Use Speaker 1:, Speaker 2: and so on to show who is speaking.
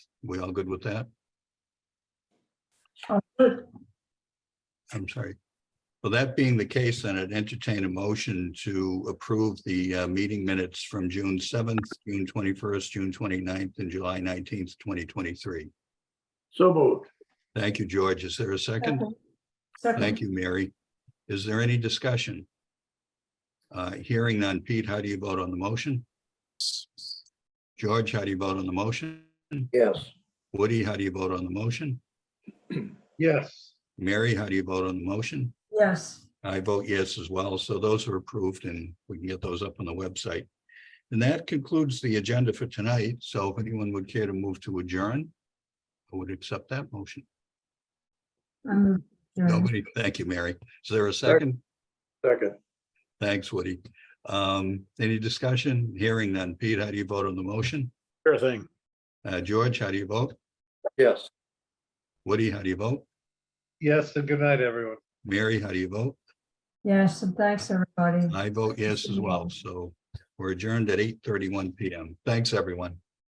Speaker 1: We all good with that?
Speaker 2: Sounds good.
Speaker 1: I'm sorry. Well, that being the case, then I'd entertain a motion to approve the uh, meeting minutes from June seventh, June twenty-first, June 29th, and July nineteenth, twenty twenty-three.
Speaker 3: So moved.
Speaker 1: Thank you, George. Is there a second?
Speaker 2: Second.
Speaker 1: Thank you, Mary. Is there any discussion? Uh, Hearing none. Pete, how do you vote on the motion? George, how do you vote on the motion?
Speaker 3: Yes.
Speaker 1: Woody, how do you vote on the motion?
Speaker 3: Yes.
Speaker 1: Mary, how do you vote on the motion?
Speaker 2: Yes,
Speaker 1: I vote yes as well, so those are approved and we can get those up on the website. And that concludes the agenda for tonight, so if anyone would care to move to adjourn, I would accept that motion.
Speaker 2: I'm, yeah,
Speaker 1: Nobody, thank you, Mary. Is there a second?
Speaker 3: Second.
Speaker 1: Thanks, Woody. Um, any discussion? Hearing none. Pete, how do you vote on the motion?
Speaker 3: Sure thing.
Speaker 1: Uh, George, how do you vote?
Speaker 3: Yes.
Speaker 1: Woody, how do you vote?
Speaker 3: Yes, and good night, everyone.
Speaker 1: Mary, how do you vote?
Speaker 2: yes, and thanks, everybody.
Speaker 1: I vote yes as well, so we're adjourned at eight thirty-one PM. Thanks, everyone.